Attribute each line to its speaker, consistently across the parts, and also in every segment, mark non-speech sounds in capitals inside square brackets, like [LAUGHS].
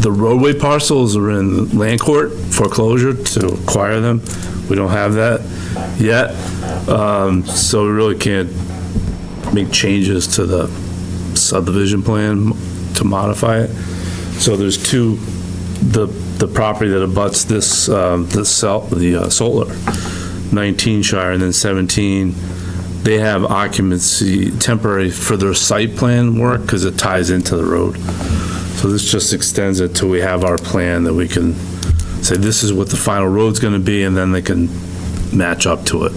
Speaker 1: The roadway parcels are in land court foreclosure to acquire them. We don't have that yet. Um, So we really can't make changes to the subdivision plan to modify it. So there's two, the, the property that abuts this, um, the cell, the uh, solar, 19 Shire and then 17, they have occupancy temporary for their site plan work because it ties into the road. So this just extends it till we have our plan that we can say, this is what the final road's gonna be, and then they can match up to it.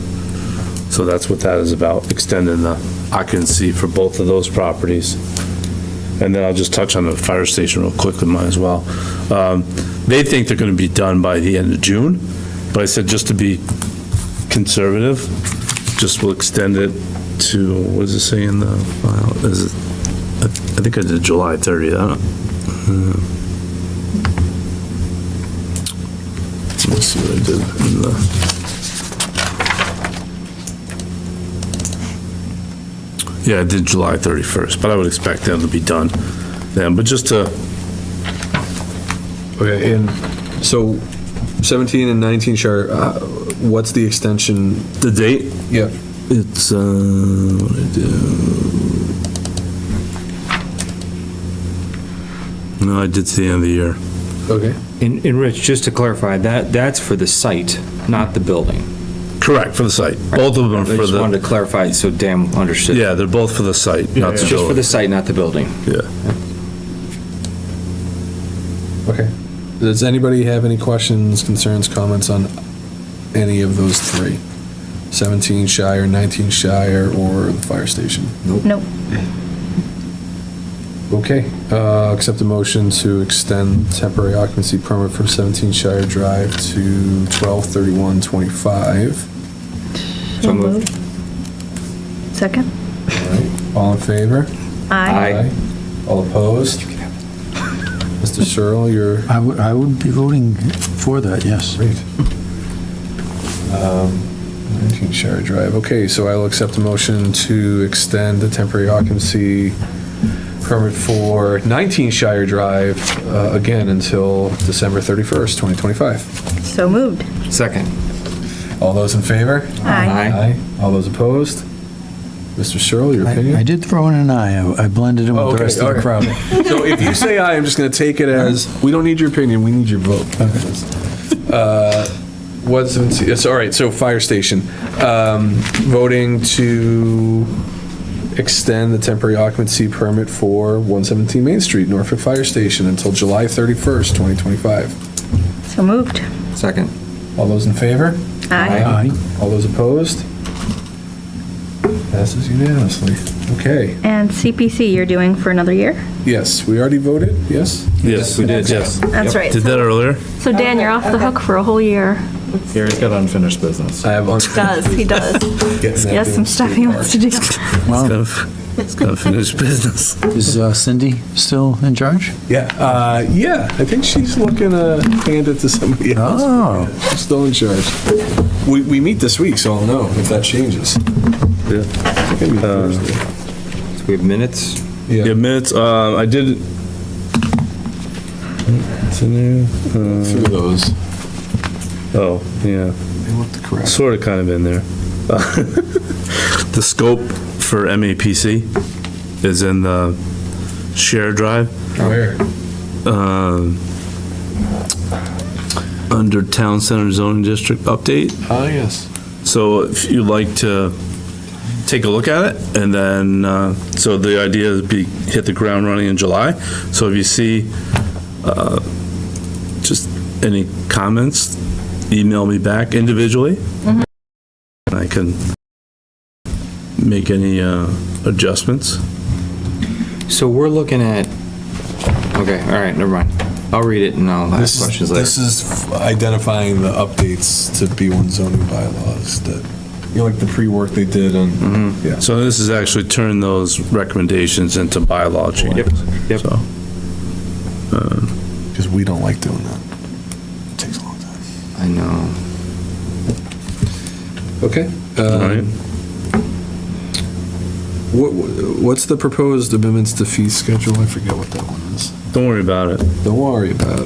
Speaker 1: So that's what that is about, extending the occupancy for both of those properties. And then I'll just touch on the fire station real quickly, might as well. Um, They think they're gonna be done by the end of June, but I said just to be conservative, just will extend it to, what does it say in the file? Is it, I I think I did July 30th, I don't, Let's see what I did in the. Yeah, I did July 31st, but I would expect that to be done then, but just uh, to,
Speaker 2: Okay, and so 17 and 19 Shire, uh, what's the extension?
Speaker 1: the date,
Speaker 2: Yeah.
Speaker 1: it's, uh, what did I do? No, I did to the end of the year.
Speaker 2: Okay.
Speaker 3: And, and Rich, just to clarify, that, that's for the site, not the building.
Speaker 1: Correct, for the site. Both of them
Speaker 3: I
Speaker 1: are for
Speaker 3: just wanted
Speaker 1: the,
Speaker 3: to clarify, so damn understood.
Speaker 1: yeah, they're both for the site, not the
Speaker 3: It's just for the
Speaker 1: building.
Speaker 3: site, not the building.
Speaker 1: Yeah.
Speaker 2: Okay. Does anybody have any questions, concerns, comments on any of those three? 17 Shire, 19 Shire, or the fire station?
Speaker 4: Nope.
Speaker 2: Okay, uh, accept a motion to extend temporary occupancy permit from 17 Shire Drive to 12/31/25.
Speaker 3: So moved.
Speaker 4: Second?
Speaker 2: All in favor?
Speaker 3: Aye.
Speaker 2: All opposed? Mr. Searle, you're
Speaker 5: I would, I would be voting for that, yes.
Speaker 2: Great. Um, 19 Shire Drive. Okay, so I will accept a motion to extend the temporary occupancy permit for 19 Shire Drive, uh, again, until December 31st, 2025.
Speaker 4: So moved.
Speaker 3: Second.
Speaker 2: All those in favor?
Speaker 4: Aye.
Speaker 2: All those opposed? Mr. Searle, your opinion?
Speaker 5: I I did throw in an aye, I- I blended in
Speaker 2: Oh,
Speaker 5: with
Speaker 2: okay,
Speaker 5: the rest of
Speaker 2: okay.
Speaker 5: the crowd.
Speaker 2: [LAUGHS] So if you say aye, I'm just going to take it as, we don't need your opinion, we need your vote. Uh, What's, it's, all right, so fire station, um, voting to extend the temporary occupancy permit for 117 Main Street, Norfolk Fire Station, until July 31st, 2025.
Speaker 4: So moved.
Speaker 3: Second.
Speaker 2: All those in favor?
Speaker 4: Aye.
Speaker 5: Aye.
Speaker 2: All those opposed? Passes unanimously. Okay,
Speaker 4: And CPC you're doing for another year?
Speaker 2: yes, we already voted, yes?
Speaker 1: Yes, we did, yes.
Speaker 4: That's right.
Speaker 1: Did that earlier?
Speaker 4: So Dan, you're off the hook for a whole year.
Speaker 6: Gary's got unfinished business.
Speaker 2: I have. un-
Speaker 4: Does, he does.
Speaker 2: Getting that
Speaker 4: He has some
Speaker 2: damn
Speaker 4: stuff he wants to do.
Speaker 5: Well,
Speaker 1: It's gonna finish business.
Speaker 5: is uh, Cindy still in charge?
Speaker 2: Yeah, uh, yeah, I think she's looking to hand it to somebody else.
Speaker 5: Oh.
Speaker 2: She's still in charge. We, we meet this week, so I'll know if that changes.
Speaker 1: [LAUGHS] Yeah.
Speaker 2: I think we meet Thursday.
Speaker 3: So we have minutes?
Speaker 1: Yeah,
Speaker 2: Yeah,
Speaker 1: minutes, uh, I did. It's in
Speaker 2: through
Speaker 1: there,
Speaker 2: those.
Speaker 1: uh, oh, yeah.
Speaker 2: They looked correct.
Speaker 1: Sort of kind of in there. [LAUGHS] The scope for MAPC is in the share drive,
Speaker 2: Where?
Speaker 1: um, under Town Center Zoning District update.
Speaker 2: Ah, yes.
Speaker 1: So if you'd like to take a look at it, and then, uh, so the idea is be, hit the ground running in July. So if you see uh, just any comments, email me back individually.
Speaker 3: Mm-hmm.
Speaker 1: And I can make any uh, adjustments.
Speaker 3: So we're looking at, okay, all right, never mind. I'll read it and I'll ask
Speaker 2: This is,
Speaker 3: questions later.
Speaker 2: this is identifying the updates to B1 zoning bylaws that, you know, like the pre-work they did on. Yeah.
Speaker 1: So this is actually turn those recommendations into bylaw changes.
Speaker 3: yep.
Speaker 1: So, uh,
Speaker 2: Because we don't like doing that. It Takes a long time.
Speaker 3: I know.
Speaker 2: Okay.
Speaker 1: all right.
Speaker 3: Um,
Speaker 2: What, what's the proposed amendments to fee schedule? I forget what that one is.
Speaker 1: Don't worry about it.
Speaker 2: Don't worry about it.